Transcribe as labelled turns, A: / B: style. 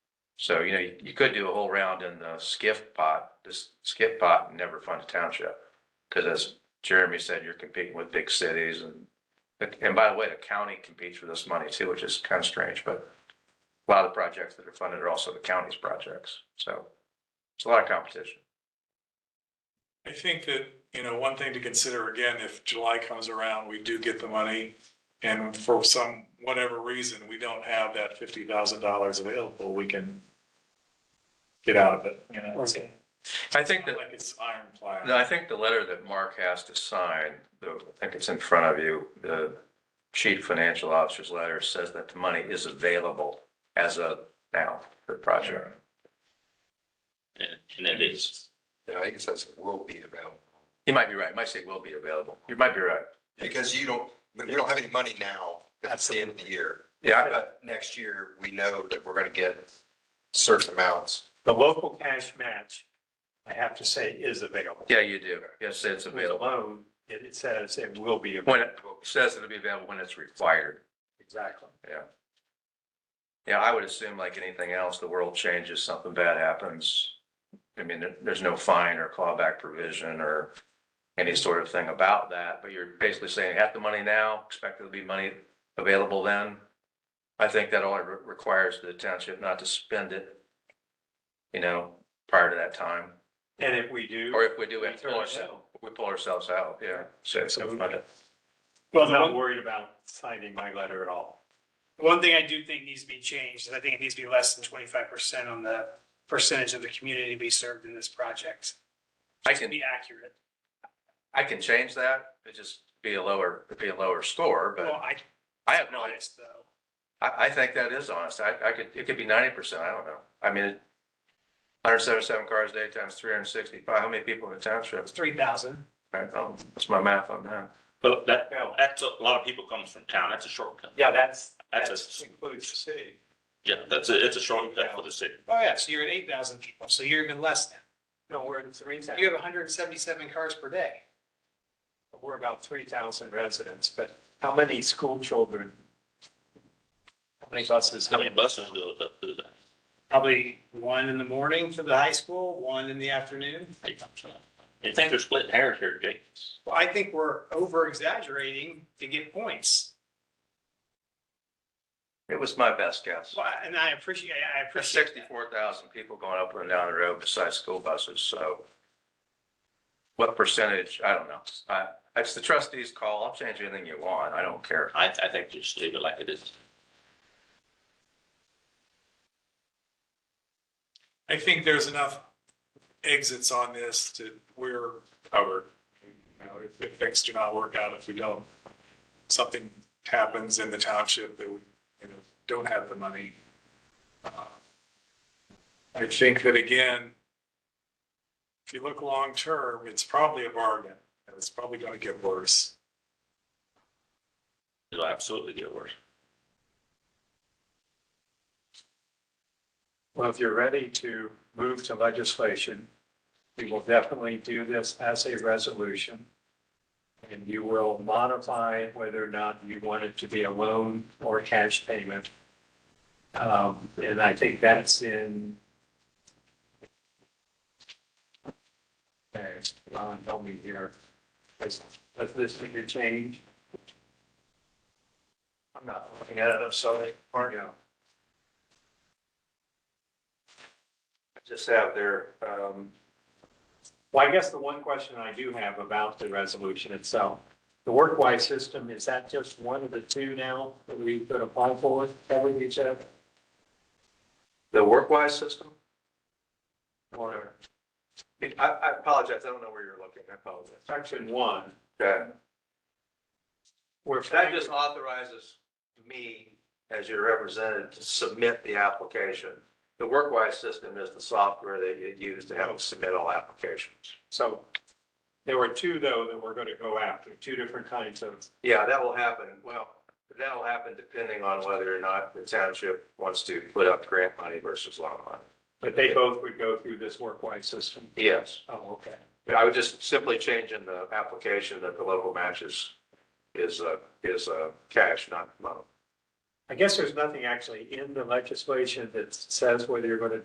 A: So, you know, you, you could do a whole round in the skiff pot, this skip pot and never fund a township. Cause as Jeremy said, you're competing with big cities and, and by the way, the county competes for this money too, which is kind of strange, but a lot of the projects that are funded are also the county's projects, so it's a lot of competition.
B: I think that, you know, one thing to consider again, if July comes around, we do get the money. And for some, whatever reason, we don't have that fifty thousand dollars available, we can. Get out of it, you know, it's
A: Okay. I think that
B: not like it's ironclad.
A: No, I think the letter that Mark has to sign, the- I think it's in front of you, the chief financial officer's letter says that the money is available as of now for the project.
C: And and it is.
D: Yeah, I guess that's will be available,
A: You might be right. Might say will be available. You might be right.
D: because you don't, we don't have any money now at the end of the year.
A: Yeah,
D: But next year, we know that we're gonna get certain amounts.
E: The local cash match, I have to say, is available.
A: yeah, you do. Yes, it's
E: With a
A: available.
E: loan, it it says it will be available.
A: When it says it'll be available when it's required.
E: Exactly.
A: Yeah. Yeah, I would assume like anything else, the world changes, something bad happens. I mean, there, there's no fine or clawback provision or any sort of thing about that, but you're basically saying have the money now, expect there'll be money available then. I think that only re- requires the township not to spend it, you know, prior to that time.
E: And if we do.
A: Or if we do, we have to
E: Turn
A: pull
E: it
A: ourselves,
E: down.
A: we pull ourselves out, yeah. So, so fund it.
E: Well, I'm not worried about signing my letter at all.
F: One thing I do think needs to be changed is I think it needs to be less than twenty-five percent on the percentage of the community to be served in this project.
A: I
F: To
A: can,
F: be accurate.
A: I can change that, it just be a lower, it'd be a lower score, but.
F: Well, I,
A: I have no idea.
F: honest though.
A: I, I think that is honest. I, I could, it could be ninety percent. I don't know. I mean, hundred seventy-seven cars a day times three hundred sixty-five. How many people in the township?
F: It's three thousand.
A: Right, oh, that's my math on that.
C: But that, that's, a lot of people comes from town. That's a shortcut.
E: Yeah, that's,
C: That's
E: that
C: a-
E: includes the city.
C: Yeah, that's a, it's a shortcut for the city.
F: Oh, yeah, so you're at eight thousand people, so you're even less than.
E: No, we're in three thousand,
F: You have hundred and seventy-seven cars per day.
E: we're about three thousand residents, but how many school children? How many buses?
C: How many buses go up through that?
F: Probably one in the morning for the high school, one in the afternoon.
C: Eight times that. You think they're splitting hairs here, Jake?
F: Well, I think we're over exaggerating to get points.
A: It was my best guess.
F: Well, and I appreciate, I
A: There's
F: appreciate that.
A: sixty-four thousand people going up and down the road besides school buses, so. What percentage? I don't know. I, it's the trustees' call. I'll change anything you want. I don't care.
C: I, I think just leave it like it is.
B: I think there's enough exits on this to, we're covered. You know, If if things do not work out, if we don't, something happens in the township that we, you know, don't have the money. Uh, I think that again, if you look long-term, it's probably a bargain, and it's probably gonna get worse.
C: It'll absolutely get worse.
E: Well, if you're ready to move to legislation, we will definitely do this as a resolution. And you will modify whether or not you want it to be a loan or cash payment. Um, and I think that's in. Okay, Ron, help me here. Is, is this your change? I'm not looking at it, I'm sorry. Yeah.
A: Just have their, um,
E: Well, I guess the one question I do have about the resolution itself, the workwise system, is that just one of the two now that we could apply for, covering each other?
A: the Workwise system.
E: Or
A: I, I apologize. I don't know where you're looking. I apologize.
E: section one,
A: Okay.
E: where
A: That just authorizes me as your representative to submit the application. The Workwise system is the software that you use to help submit all applications.
E: so there were two though that we're going to go after, two different kinds of,
A: Yeah, that will happen. Well, that'll happen depending on whether or not the township wants to put up grant money versus loan money.
E: but they both would go through this workwise system.
A: Yes,
E: Oh, okay.
A: But I would just simply change in the application that the local matches is, uh, is, uh, cash, not loan.
E: I guess there's nothing actually in the legislation that says whether you're going to